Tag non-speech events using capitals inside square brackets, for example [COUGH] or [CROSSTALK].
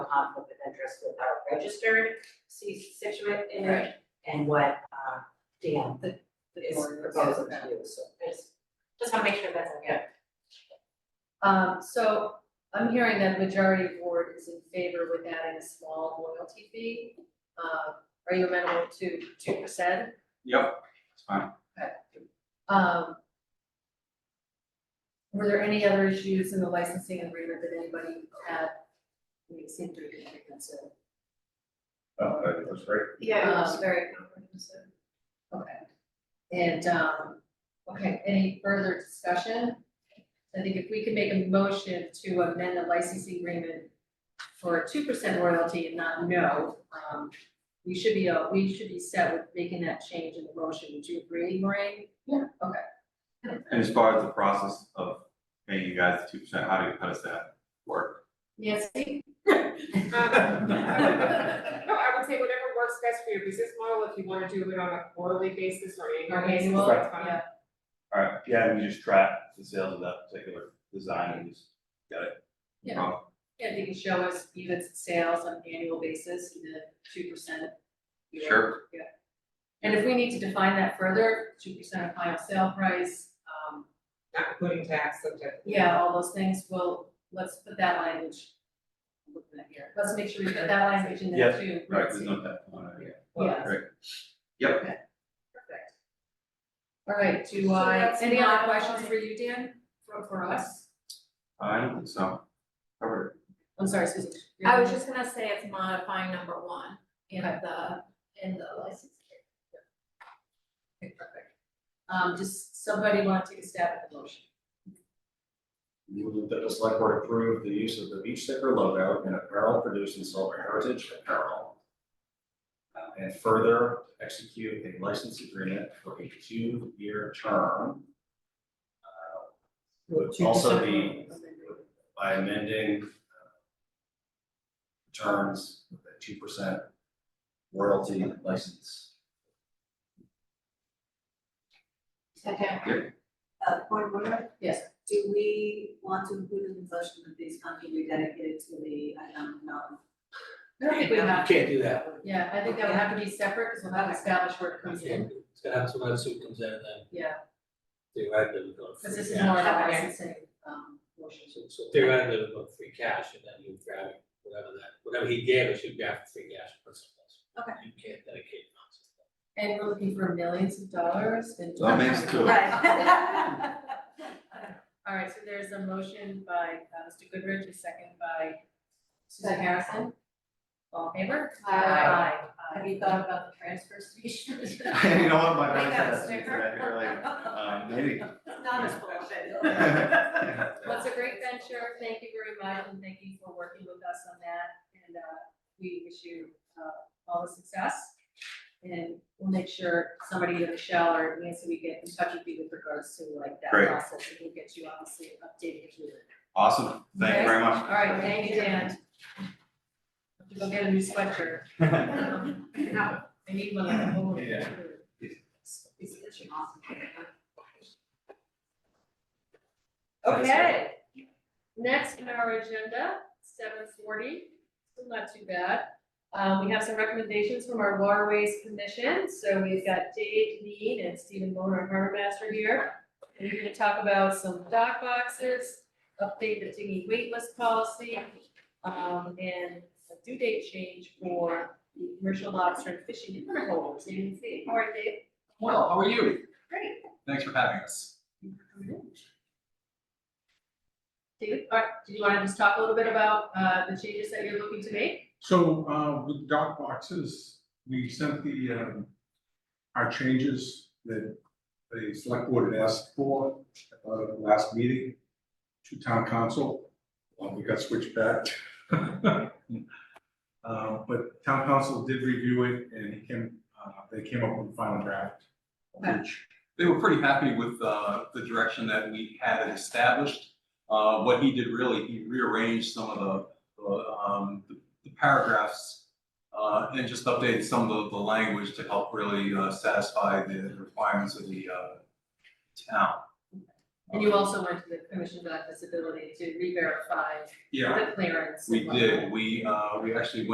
conflict of interest with our registered C- Situate image Right. and what, uh, Dan is ordinance. proposing to do, so just, just wanna make sure that's okay. Um, so I'm hearing that majority of board is in favor with adding a small loyalty fee. Uh, are you amenable to two percent? Yep, that's fine. Um. Were there any other issues in the licensing agreement that anybody had? We seem to be concerned. Oh, that was great. Yeah. Um, very comprehensive. Okay. And, um, okay, any further discussion? I think if we could make a motion to amend the licensing agreement for a two percent royalty and not no, um, we should be, uh, we should be set with making that change in the motion. Would you agree, Maureen? And as far as the process of paying you guys two percent, how do you, how does that work? Nancy? Um, [LAUGHS] No, I would say whatever works best for your business model, if you wanna do it on a quarterly basis or annual basis, Manuel? that's fine. Yeah. Alright, yeah, we just track the sales of that particular design and just Yeah, if you can show us units sales on an annual basis and the two percent. Sure. Yeah. And if we need to define that further, two percent of final sale price, um, Not including tax, subject. yeah, all those things, well, let's put that language. I'm Looking at here, let's make sure we put that language in there Yes, too. Right, there's no that one, yeah. Yeah. Right. Yep. Okay. Perfect. All right, do I, that's any not- other questions for you, Dan, for for us? I don't think so. Covered I'm sorry, Susan. I was just gonna say it's modifying number one in Okay. the, in the license. Okay, perfect. Um, just somebody want to take a stab at the motion? Move that the select board approve the use of the beach sticker logo in apparel produced in Silver Heritage Apparel. Uh, And further execute a license agreement for a two-year term. uh, Would also be by amending uh, terms with a two percent royalty license. Second. Uh, point of order, Yes, do we want to include in the motion that these funds will be dedicated to the economic development? I don't think we have, Can't do that, yeah, I think that would have to be separate, because we'll have to establish where it comes in, it's gonna have to, when soup comes in, and then yeah, theoretically we go to because this free is more cash. of a Okay. licensing, um, motion. So- So theoretically we go to free cash, and then you grab it, whatever that, whatever he gave us, you grab free cash principles. Okay. You can't dedicate funds. And we're looking for millions of dollars and. That makes two. Right. [LAUGHS] [LAUGHS] All right, so there's a motion by uh, Mr. Goodrich, a second by Susan Harrison. All in favor? Aye. Aye. Have you thought about the transfer station? [LAUGHS] You know what, my mind Make that a said that to me sticker. today earlier, uh, um, maybe. Not as full of [LAUGHS] Well, it's a great venture, thank you very much, and thank you for working with us on that, and, uh, we wish you, uh, all the success. And we'll make sure somebody, either Michelle or Nancy, we get in touch with you with regards to like that Great. process, and we'll get you obviously updated if needed. Awesome, thank you very much. All right, thank you, Dan. Have to go get a new sweatshirt. [LAUGHS] I need one of the whole. Yeah. It's such an awesome. Okay, next on our agenda, seven forty, still not too bad. Um, we have some recommendations from our waterways commission, so we've got Dave Need and Stephen Moore, our harbor master here. And we're gonna talk about some dock boxes, update the dinghy waitlist policy, um, and a due date change for the commercial lobster and fishing and permit holders, you can see, all right, Dave? Well, how are you? Great. Thanks for having us. David, all right, did you wanna just talk a little bit about, uh, the changes that you're looking to make? So, uh, with dock boxes, we sent the, um, our changes that the select board had asked for, uh, last meeting to town council. Well, we got switched back. [LAUGHS] Uh, but town council did review it and he came, uh, they came up with a final draft. Okay. Which, They were pretty happy with, uh, the direction that we had it established. Uh, what he did really, he rearranged some of the, the, um, the paragraphs, uh, and just updated some of the, the language to help really, uh, satisfy the requirements of the, uh, town. And you also went to the commissioned on disability to re-verify Yeah, the clearance. and we whatnot. did, we, uh, we actually went